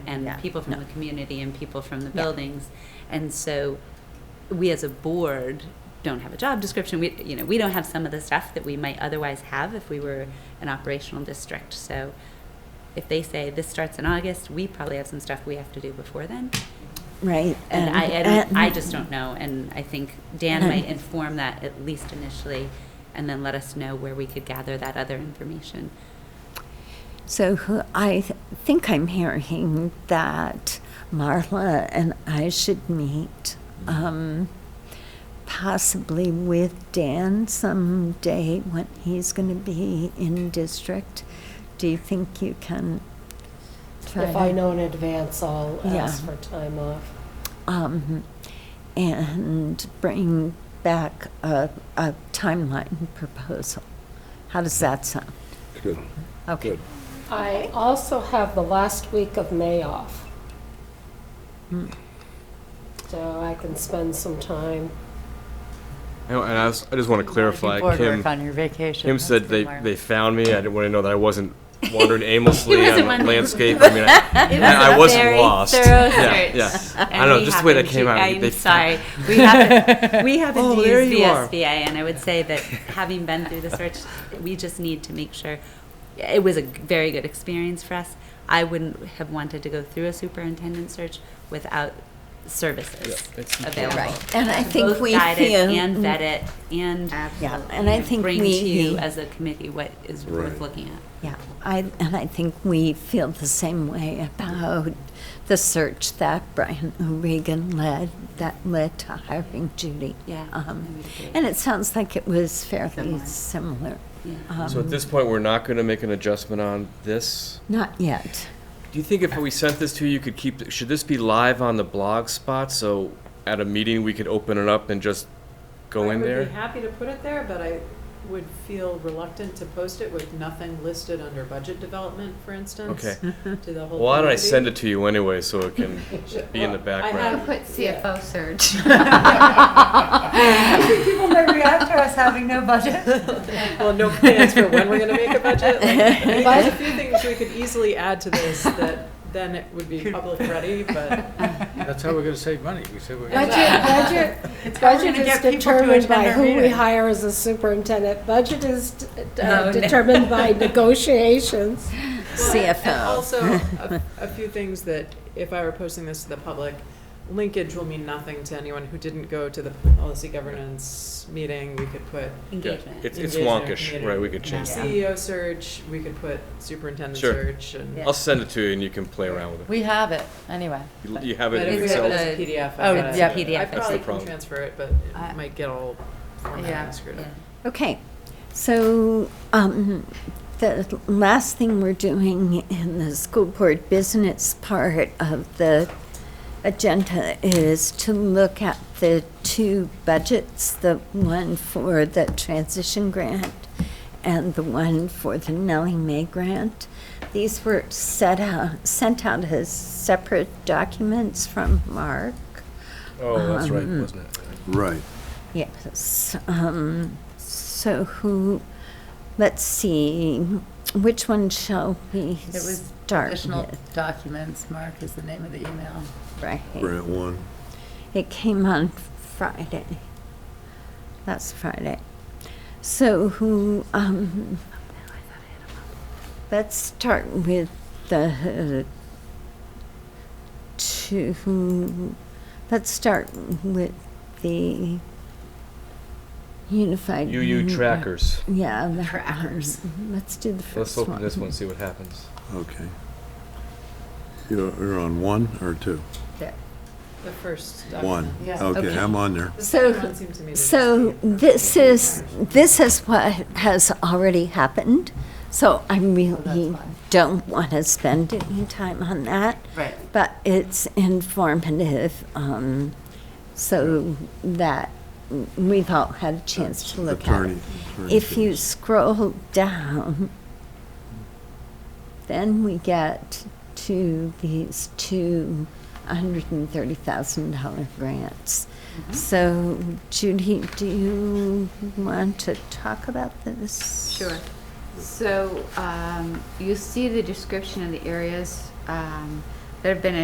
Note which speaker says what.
Speaker 1: and
Speaker 2: Yeah.
Speaker 1: people from the community and people from the
Speaker 2: Yeah.
Speaker 1: buildings. And so we as a board don't have a job description. We you know, we don't have some of the stuff that we might otherwise have if we were an operational district. So if they say this starts in August, we probably have some stuff we have to do before then.
Speaker 2: Right.
Speaker 1: And I, I,
Speaker 2: and- uh,
Speaker 1: don't, I just don't know, and I think Dan
Speaker 2: And-
Speaker 1: might inform that at least initially, and then let us know where we could gather that other information.
Speaker 2: So who- I th- think I'm hearing that Marla and I should meet, um, possibly with Dan someday when he's going to be in district. Do you think you can try
Speaker 3: If
Speaker 2: to-
Speaker 3: I know in advance, I'll
Speaker 2: Yeah.
Speaker 3: ask for time off.
Speaker 2: um, and bring back a, a timeline proposal? How does that sound?
Speaker 4: Good.
Speaker 2: Okay.
Speaker 4: Good.
Speaker 3: I also have the last week of May off. Hmm. So I can spend some time.
Speaker 5: You know, And I, was, I just want to clarify,
Speaker 6: Board
Speaker 5: Kim,
Speaker 6: work on your vacation.
Speaker 5: Kim
Speaker 6: that's
Speaker 5: said
Speaker 6: for
Speaker 5: they,
Speaker 6: tomorrow.
Speaker 5: they found me. I didn't want to know that I wasn't wandering aimlessly
Speaker 1: wasn't
Speaker 5: on
Speaker 1: wandering.
Speaker 5: landscape. I mean, I,
Speaker 1: It was
Speaker 5: I
Speaker 1: a
Speaker 5: wasn't
Speaker 1: very
Speaker 5: lost.
Speaker 1: thorough
Speaker 5: Yeah,
Speaker 1: search,
Speaker 5: yeah. I
Speaker 1: and
Speaker 5: know,
Speaker 1: we
Speaker 5: just the way that
Speaker 1: happened
Speaker 5: came
Speaker 1: to-
Speaker 5: out.
Speaker 1: I'm
Speaker 5: they found-
Speaker 1: sorry, we haven't, we haven't
Speaker 5: Oh,
Speaker 1: used
Speaker 5: there you are.
Speaker 1: VSBA, and I would say that having been through the search, we just need to make sure it was a g- very good experience for us. I wouldn't have wanted to go through a superintendent search without services
Speaker 5: Yeah, it's-
Speaker 1: available.
Speaker 2: Right. And I think
Speaker 1: Both
Speaker 2: we
Speaker 1: guide it
Speaker 2: feel- Mm.
Speaker 1: and vet it and um,
Speaker 2: Yeah, and I think
Speaker 1: bring
Speaker 2: we-
Speaker 1: to you as a committee what is worth
Speaker 4: Right.
Speaker 1: looking at.
Speaker 2: Yeah, I, and I think we feel the same way about the search that Brian O'Regan led, that led to hiring Judy.
Speaker 1: Yeah, I
Speaker 2: Um,
Speaker 1: would agree.
Speaker 2: And it sounds like it was fairly
Speaker 1: Similar.
Speaker 2: similar.
Speaker 1: Yeah.
Speaker 5: So at
Speaker 2: Um,
Speaker 5: this point, we're not going to make an adjustment on this.
Speaker 2: Not yet.
Speaker 5: Do you think if we sent this to you, you could keep, should this be live on the blog spot? So at a meeting, we could open it up and just go in
Speaker 7: I would be
Speaker 5: there?
Speaker 7: happy to put it there, but I would feel reluctant to post it with nothing listed under budget development, for instance.
Speaker 5: Okay.
Speaker 7: To the whole.
Speaker 5: Well, why don't I send it to you anyway, so it can be in the background?
Speaker 7: put CFO.
Speaker 6: People may react to us having no budget.
Speaker 7: Well, no plans for when we're gonna make a budget. Like, There's a few things we could easily add to this that then it would be public ready, but.
Speaker 8: That's how we're gonna save money. We said we're gonna.
Speaker 3: Budget, budget, budget is determined by who we hire as a superintendent. Budget is d- d- uh, determined by negotiations.
Speaker 7: Well, and-
Speaker 2: CFO.
Speaker 7: And also, a- a few things that, if I were posting this to the public, linkage will mean nothing to anyone who didn't go to the policy governance meeting. We could put
Speaker 1: Engagement.
Speaker 5: It's, it's
Speaker 7: engagement
Speaker 5: wonkish,
Speaker 7: community.
Speaker 5: right? We could change it.
Speaker 7: CEO E search, we could put superintendent
Speaker 5: Sure.
Speaker 7: search and.
Speaker 5: I'll send it to you and you can play around with it.
Speaker 6: We have it, anyway.
Speaker 5: You- You have
Speaker 7: But
Speaker 5: it in
Speaker 7: if we
Speaker 5: Excel.
Speaker 7: have it as a PDF. I
Speaker 6: Oh,
Speaker 7: gotta-
Speaker 6: yeah,
Speaker 1: PDF,
Speaker 7: I
Speaker 1: that's the
Speaker 7: probably can
Speaker 5: problem.
Speaker 7: transfer it, but
Speaker 6: I-
Speaker 7: it might get all
Speaker 6: Yeah.
Speaker 7: formatted screwed up.
Speaker 2: Okay, so um, the last thing we're doing in the school board business part of the agenda is to look at the two budgets, the one for the transition grant and the one for the Nellie May grant. These were set out, sent out as separate documents from Mark.
Speaker 5: Oh, that's right,
Speaker 2: Um,
Speaker 5: wasn't it?
Speaker 4: Right.
Speaker 2: Yes. Um, so who, let's see, which one shall we
Speaker 6: It was
Speaker 2: start
Speaker 6: additional
Speaker 2: with?
Speaker 6: documents, Mark is the name of the email.
Speaker 2: Right.
Speaker 4: Grant one.
Speaker 2: It came on Friday. That's Friday. So who, um, let's start with the two, let's start with the unified.
Speaker 5: UU trackers.
Speaker 2: Yeah. that
Speaker 6: Trackers.
Speaker 2: one. Let's do the
Speaker 5: Let's
Speaker 2: first one.
Speaker 5: open this one, see what happens.
Speaker 4: Okay. You're, you're on one or two?
Speaker 7: The first.
Speaker 4: One.
Speaker 7: document.
Speaker 4: Okay, I'm on there.
Speaker 7: The
Speaker 2: So-
Speaker 7: second one seemed to me to just
Speaker 2: So
Speaker 7: be-
Speaker 2: this is, this is what has already happened, so I really
Speaker 6: fine.
Speaker 2: don't want to spend any time on that.
Speaker 6: Right.
Speaker 2: But it's informative, um, so that we've all had a chance to look at it.
Speaker 4: Attorney. attorney
Speaker 2: If you
Speaker 4: fees.
Speaker 2: scroll down, then we get to these two $130,000 grants. So Judy, do you want to talk about this?
Speaker 9: Sure. So um, you see the description of the areas um,
Speaker 1: There have been